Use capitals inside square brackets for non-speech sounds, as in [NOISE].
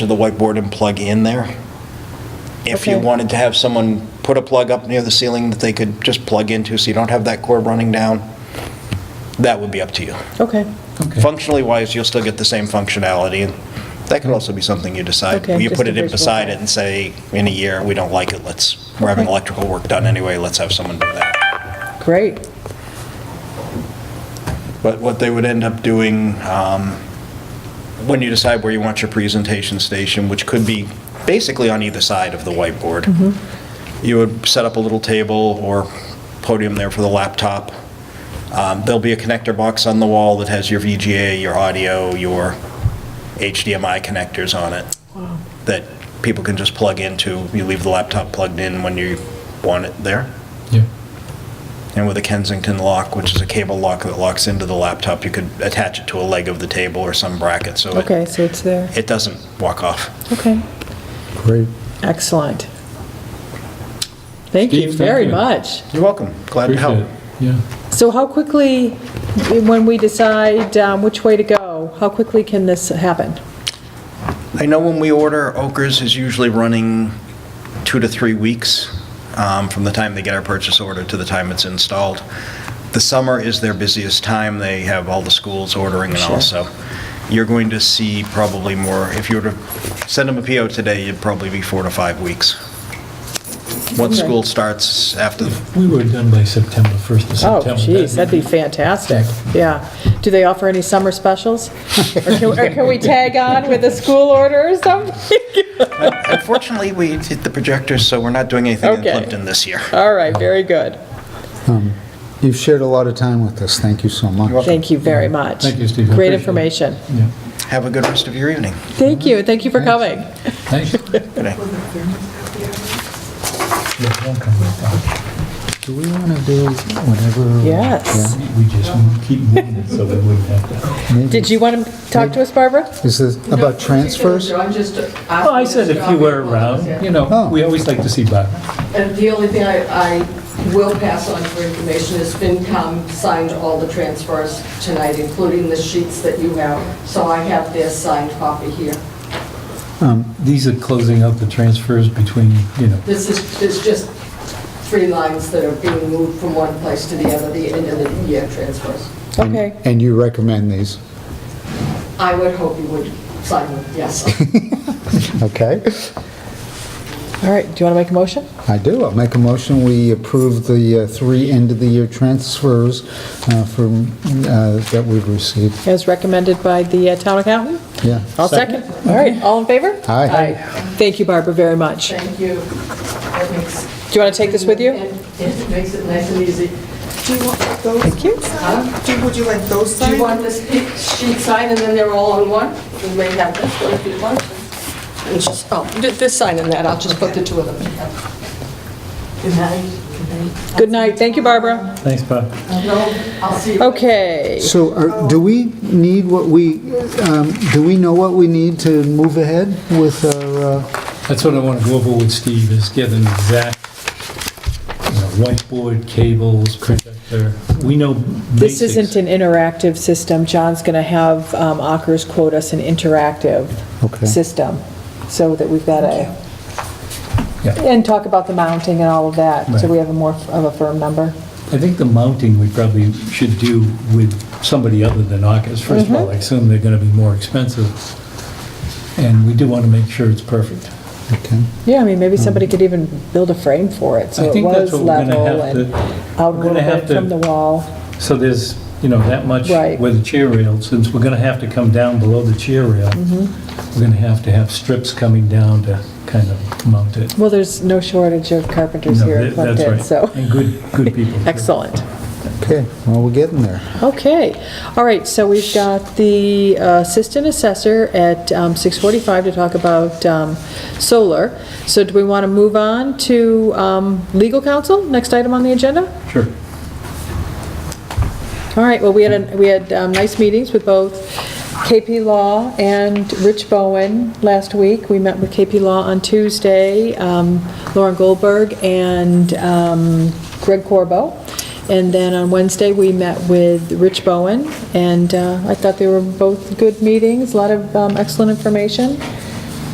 to the whiteboard and plug in there. If you Okay. wanted to have someone put a plug up near the ceiling that they could just plug into so you don't have that cord running down, that would be up to you. Okay, Okay. Functionally wise, you'll still get the same functionality, and that could also be something you decide. Okay, You just put a it in visual. beside it and say, in a year, we don't like it, let's, we're having Okay. electrical work done anyway, let's have someone do that. great. But what they would end up doing, um, when you decide where you want your presentation station, which could be basically on either side of the whiteboard, Mm-hmm. you would set up a little table or podium there for the laptop. Um, There'll be a connector box on the wall that has your VGA, your audio, your HDMI connectors on it that people can just plug into. You leave the laptop plugged in when you want it there. Yeah. And with a Kensington lock, which is a cable lock that locks into the laptop, you could attach it to a leg of the table or some bracket, so it- Okay, so it's there. it doesn't walk off. Okay, Great. excellent. Thank you Steve, thank very you. much. You're welcome. Glad to Appreciate help. it. Yeah. So how quickly, when we decide um, which way to go, how quickly can this happen? I know when we order, Okers is usually running two to three weeks um, from the time they get our purchase order to the time it's installed. The summer is their busiest time. They have all the schools ordering and all, so you're going to see probably more, if you were to send them a PO today, it'd probably be four to five weeks. Once Okay. school starts after, We were done by September, 1st of Oh, September. geez, that'd be fantastic, yeah. Do they offer any summer [LAUGHS] specials? Or can- Or can we tag on with a school order or something? [LAUGHS] unfortunately, we hit the projectors, so we're not doing anything in Okay. Plimpton this year. All right, very good. You've shared a lot of time with us. Thank you so much. Thank you very much. Thank you, Steve. I appreciate Great it. information. Yeah. Have a good rest of your evening. Thank you, thank you for Thanks. coming. Thanks. Yeah, Good night. don't come back. Do we want to do whatever? Yes. We- We just keep moving it so we wouldn't have to. Yeah, maybe. Did you want to talk to us, Barbara? Is this about transfers? I'm just Well, I said if you were around, you know, Oh. we always like to see Bob. And the only thing I, I will pass on for information is FinCom signed all the transfers tonight, including the sheets that you have. So I have their signed copy here. Um, These are closing out the transfers between, you know, This is, there's just three lines that are being moved from one place to the other, the end of the year transfers. And- Okay. And you recommend these, I would hope you would sign them, [LAUGHS] yes. okay? All right, do you want to make a motion? I do. I'll make a motion. We approve the uh, three end-of-the-year transfers uh, from, uh, that we've received. As recommended by the uh, town accountant? Yeah. I'll second. All right, all in favor? Aye. Aye. Thank you, Barbara, very much. Do Thank you. That makes- you want to take this with you? It it makes it nice and easy. Do you want those? Thank you. Huh? Do- Would you like those Do signed? you want this pic- sheet signed and then they're all in one? You may have this one if you want. And just, oh, th- this sign and that, I'll just put the two of them together. Good night. Good night, thank you, Barbara. thanks, Bob. No, I'll see you. Okay, So are- do we need what we, um, do we know what we need to move ahead with our, uh, That's what I want to go over with Steve, is get an exact, you know, whiteboard, cables, projector. We know this basics. isn't an interactive system. John's going to have um, Akers quote us an interactive Okay. system, so that we've got a, Yeah. and talk about the mounting and all of that, so Right. we have a more f- of a firm number. I think the mounting we probably should do with somebody other than AUKUS. First of all, Mm-hmm. I assume they're gonna be more expensive, and we do want to make sure it's perfect. okay? Yeah, I mean, maybe somebody could even build a frame for it, Hmm. I so it think that's was what we're gonna level have and to- out a we're gonna little bit have to- from the wall. So there's, you know, that much Right. where the chair rail, since we're gonna have to come down below the chair rail, Mm-hmm. we're gonna have to have strips coming down to kind of mount it. Well, there's no shortage of carpenters No, here in that- that's Plimpton, right. so, And good, good [LAUGHS] people. too. excellent. Okay, well, we're getting there. Okay, all right, so we've got the uh, assistant assessor at um, 6:45 to talk about um, solar. So do we want to move on to um, legal counsel, next item on the agenda? Sure. All right, well, we had, a- we had um, nice meetings with both KP Law and Rich Bowen last week. We met with KP Law on Tuesday, um, Lauren Goldberg and um, Greg Corbo. And then on Wednesday, we met with Rich Bowen, and uh, I thought they were both good meetings, a lot of um, excellent information.